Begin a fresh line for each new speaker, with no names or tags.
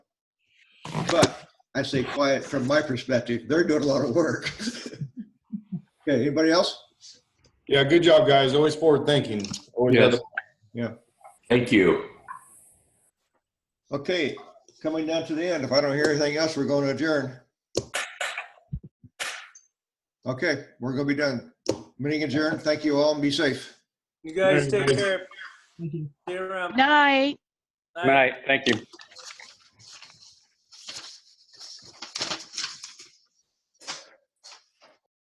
but I say quiet from my perspective, they're doing a lot of work. Okay, anybody else?
Yeah, good job, guys. Always forward thinking. Always
Yes.
Thank you.
Okay, coming down to the end, if I don't hear anything else, we're going to adjourn. Okay, we're gonna be done. Meeting adjourned. Thank you all and be safe.
You guys
Very good.
take care. See you around.
Night.
Bye.
Good night. Thank you.